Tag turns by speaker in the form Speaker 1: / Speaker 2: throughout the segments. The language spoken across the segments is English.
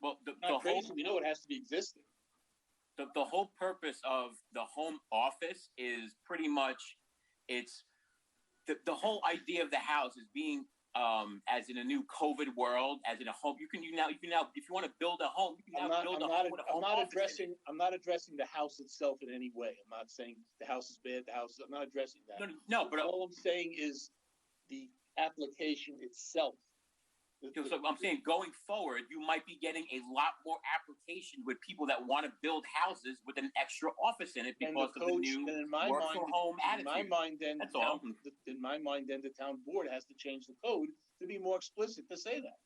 Speaker 1: Well, the, the
Speaker 2: Not
Speaker 1: whole
Speaker 2: crazy. We know it has to be existing.
Speaker 1: the, the whole purpose of the home office is pretty much it's the, the whole idea of the house is being um, as in a new COVID world, as in a home, you can you now you can now if you want to build a home, you can
Speaker 2: I'm
Speaker 1: now
Speaker 2: not,
Speaker 1: build
Speaker 2: I'm
Speaker 1: a
Speaker 2: not,
Speaker 1: home with a
Speaker 2: I'm
Speaker 1: home
Speaker 2: not
Speaker 1: office in it.
Speaker 2: addressing, I'm not addressing the house itself in any way. I'm not saying the house is bad, the house, I'm not addressing that.
Speaker 1: No, No, but uh,
Speaker 2: All I'm saying is the application itself. The-
Speaker 1: So so I'm saying going forward, you might be getting a lot more application with people that want to build houses with an extra office in it
Speaker 2: And
Speaker 1: because
Speaker 2: the
Speaker 1: of the
Speaker 2: codes-
Speaker 1: new
Speaker 2: then in my
Speaker 1: work
Speaker 2: mind,
Speaker 1: from home
Speaker 2: In my
Speaker 1: attitude.
Speaker 2: mind, then, the
Speaker 1: That's all.
Speaker 2: town- the- in my mind, then the town board has to change the code to be more explicit to say that.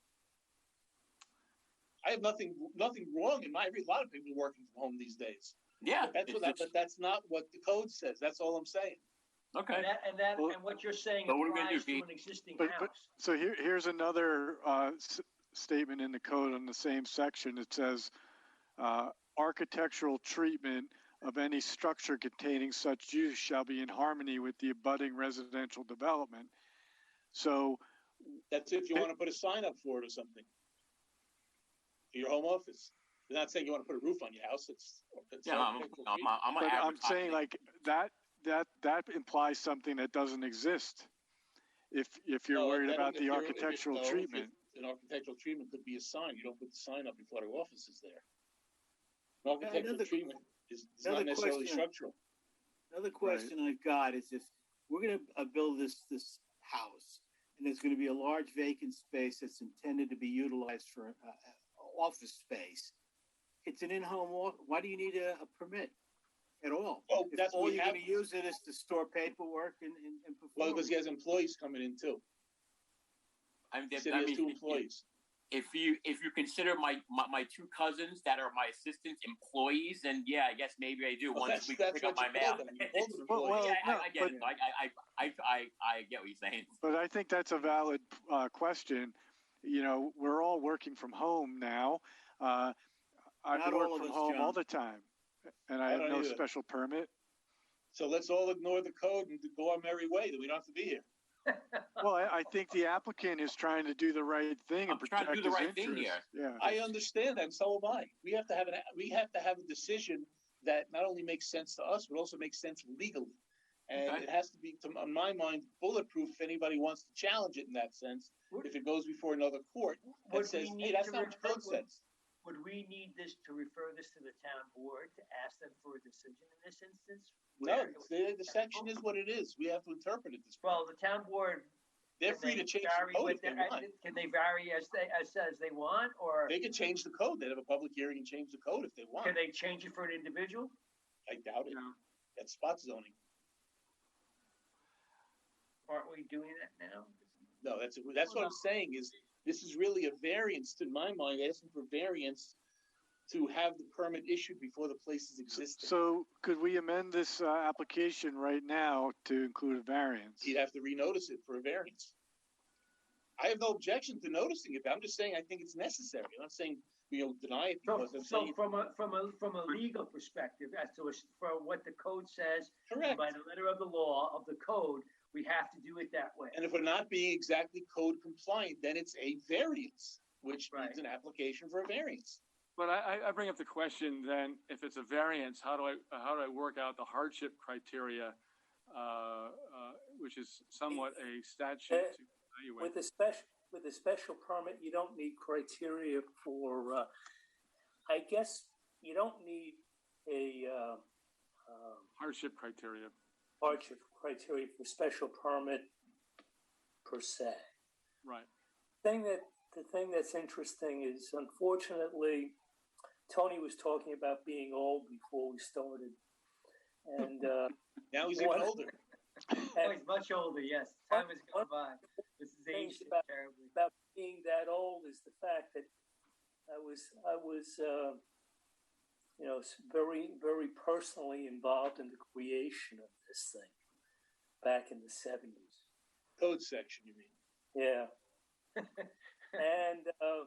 Speaker 2: I have nothing, nothing wrong in my, a lot of people are working from home these days.
Speaker 1: Yeah,
Speaker 2: That's
Speaker 1: it's-
Speaker 2: what, I-
Speaker 1: it's-
Speaker 2: but that's not what the code says. That's all I'm saying.
Speaker 1: okay.
Speaker 3: And that, and that,
Speaker 4: Well-
Speaker 3: and what you're saying
Speaker 1: But what are we gonna
Speaker 3: applies
Speaker 1: do, Pete?
Speaker 3: to an existing
Speaker 4: But- but-
Speaker 3: house.
Speaker 4: So here, here's another uh, s- statement in the code on the same section. It says, uh, "Architectural treatment of any structure containing such use shall be in harmony with the abutting residential development." So,
Speaker 2: That's if you want to put a sign up for it or something. For your home office. They're not saying you want to put a roof on your house. It's. it's
Speaker 1: Yeah, I'm,
Speaker 2: architectural
Speaker 1: I'm, I'm,
Speaker 4: but I'm
Speaker 1: advertising
Speaker 4: saying
Speaker 1: it.
Speaker 4: like that that that implies something that doesn't exist. If if you're
Speaker 2: No,
Speaker 4: worried
Speaker 2: that-
Speaker 4: about
Speaker 2: if
Speaker 4: the
Speaker 2: you're- if it's-
Speaker 4: architectural
Speaker 2: no, if it's-
Speaker 4: treatment,
Speaker 2: An architectural treatment could be a sign. You don't put the sign up before the office is there. An architectural
Speaker 5: another-
Speaker 2: treatment is, is
Speaker 5: another
Speaker 2: not necessarily
Speaker 5: question.
Speaker 2: structural.
Speaker 5: Another question I've got is if we're gonna uh, build this, this house, and there's gonna be a large vacant space that's intended to be utilized for, uh, uh, office space. It's an in-home, wa- why do you need a, a permit at all?
Speaker 2: Well,
Speaker 5: If
Speaker 2: Oh, that's what
Speaker 5: all
Speaker 2: we
Speaker 5: you're
Speaker 2: have-
Speaker 5: gonna use it is to store paperwork and, and, and
Speaker 2: Well, because
Speaker 5: perform.
Speaker 2: he has employees coming in too.
Speaker 1: I mean,
Speaker 2: He
Speaker 1: that-
Speaker 2: said
Speaker 1: I
Speaker 2: he has
Speaker 1: mean,
Speaker 2: two
Speaker 1: if-
Speaker 2: employees.
Speaker 1: If you, if you consider my, my, my two cousins that are my assistants employees, then yeah, I guess maybe I do
Speaker 2: Well,
Speaker 1: once
Speaker 2: that's-
Speaker 1: we
Speaker 2: that's
Speaker 1: pick up
Speaker 2: what
Speaker 1: my
Speaker 2: you call
Speaker 1: mail.
Speaker 2: them. You call them
Speaker 4: Well, well,
Speaker 2: employees.
Speaker 1: Yeah, I,
Speaker 4: no,
Speaker 1: I get it. I, I, I, I, I get what you're saying.
Speaker 4: But I think that's a valid uh, question. You know, we're all working from home now. Uh, I
Speaker 5: Not
Speaker 4: can work
Speaker 5: all of
Speaker 4: from
Speaker 5: us,
Speaker 4: home all
Speaker 5: John.
Speaker 4: the time, and I, have
Speaker 2: don't
Speaker 4: no
Speaker 2: either.
Speaker 4: special permit.
Speaker 2: So let's all ignore the code and go our merry way, that we don't have to be here.
Speaker 4: Well, I, I think the applicant is trying to do the right thing
Speaker 1: I'm
Speaker 4: and
Speaker 1: trying
Speaker 4: protect
Speaker 1: to do the
Speaker 4: his
Speaker 1: right thing
Speaker 4: interests. Yeah.
Speaker 2: I understand that, and so am I. We have to have an, we have to have a decision that not only makes sense to us, but also makes sense legally. And
Speaker 1: Okay.
Speaker 2: it has to be, to in my mind, bulletproof if anybody wants to challenge it in that sense. If it goes before another court that
Speaker 3: Would
Speaker 2: says,
Speaker 3: we
Speaker 2: hey,
Speaker 3: need
Speaker 2: that's
Speaker 3: to
Speaker 2: not what the
Speaker 3: refer-
Speaker 2: code says.
Speaker 3: Would we need this to refer this to the town board to ask them for a decision in this instance?
Speaker 2: No,
Speaker 3: Where-
Speaker 2: the, the section is what it is. We have to interpret it this way.
Speaker 3: Well, the town board.
Speaker 2: They're
Speaker 3: can
Speaker 2: free
Speaker 3: they
Speaker 2: to change
Speaker 3: vary
Speaker 2: the code
Speaker 3: with
Speaker 2: if they
Speaker 3: their-
Speaker 2: want.
Speaker 3: Can they vary as they, as, as they want, or
Speaker 2: They could change the code. They'd have a public hearing and change the code if they want.
Speaker 3: can they change it for an individual?
Speaker 2: I doubt it.
Speaker 3: No.
Speaker 2: That's spot zoning.
Speaker 3: Aren't we doing that now?
Speaker 2: No, that's, that's what I'm saying is, this is really a variance, to my mind, asking for variance to have the permit issued before the place is
Speaker 4: So,
Speaker 2: existing.
Speaker 4: so could we amend this uh, application right now to include a variance?
Speaker 2: You'd have to renotice it for a variance. I have no objection to noticing it, but I'm just saying I think it's necessary. I'm not saying, you know, deny it
Speaker 3: So,
Speaker 2: because I'm
Speaker 3: so
Speaker 2: saying,
Speaker 3: from a, from a, from a legal perspective, as to, as- for what the code says, and
Speaker 2: correct.
Speaker 3: by the letter of the law, of the code, we have to do it that way.
Speaker 2: And if we're not being exactly code compliant, then it's a variance, which
Speaker 3: Right.
Speaker 2: means an application for a variance.
Speaker 6: But I, I- I bring up the question then, if it's a variance, how do I, how do I work out the hardship criteria? uh, uh, Which is somewhat a statute to evaluate.
Speaker 7: With a special, with a special permit, you don't need criteria for, uh, I guess, you don't need a, uh, um,
Speaker 6: hardship criteria.
Speaker 7: hardship criteria for special permit per se.
Speaker 6: Right.
Speaker 7: Thing that, the thing that's interesting is unfortunately, Tony was talking about being old before we started. And, uh,
Speaker 2: Now he's even
Speaker 7: What?
Speaker 2: older.
Speaker 3: Oh,
Speaker 7: and
Speaker 3: he's much older, yes. Time has gone by. This is aged
Speaker 7: Things about-
Speaker 3: terribly.
Speaker 7: about being that old is the fact that I was I was uh, you know s- very very personally involved in the creation of this thing back in the seventies.
Speaker 2: Code section, you mean?
Speaker 7: Yeah, and uh,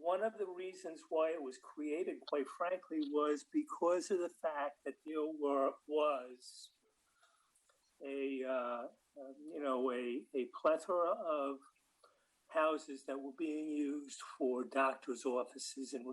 Speaker 7: one of the reasons why it was created, quite frankly, was because of the fact that there were was a uh, uh, you know a, a plethora of houses that were being used for doctors' offices and